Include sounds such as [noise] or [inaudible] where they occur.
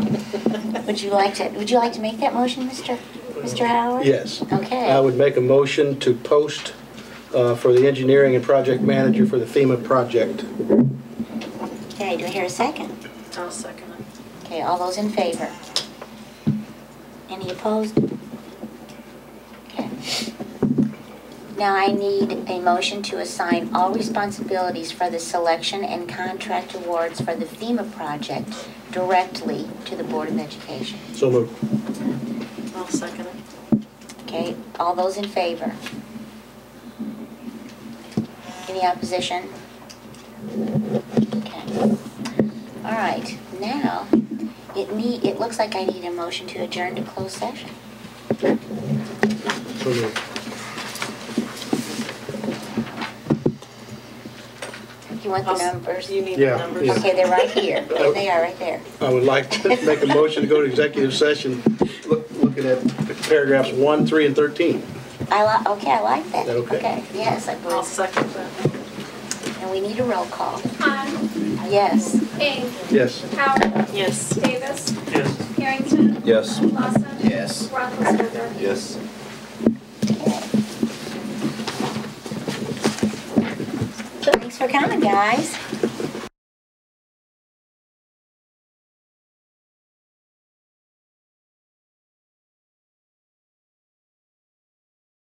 Would you like to, would you like to make that motion, Mr. Mr. Howard? Yes. Okay. I would make a motion to post uh, for the engineering and project manager for the FEMA project. Okay, do I hear a second? I'll second it. Okay, all those in favor? Any opposed? Okay. Now I need a motion to assign all responsibilities for the selection and contract awards for the FEMA project directly to the Board of Education. So moved. I'll second it. Okay, all those in favor? Any opposition? Okay. All right, now, it need, it looks like I need a motion to adjourn to closed session. So moved. You want the I'll s- numbers? You need the Yeah, numbers. yeah. Okay, they're right [laughs] here. There They are right there. I would like to make a motion to go to executive session, look- looking at paragraphs 1, 3, and 13. I li, okay, I like that. Is that okay? Yes, I I'll will. second that. And we need a roll call. Han, Yes. King, Yes. Howard, Yes. Davis. Harrington. Yes. Lawson. Yes. Roethlisberger. Yes. Thanks for coming, guys.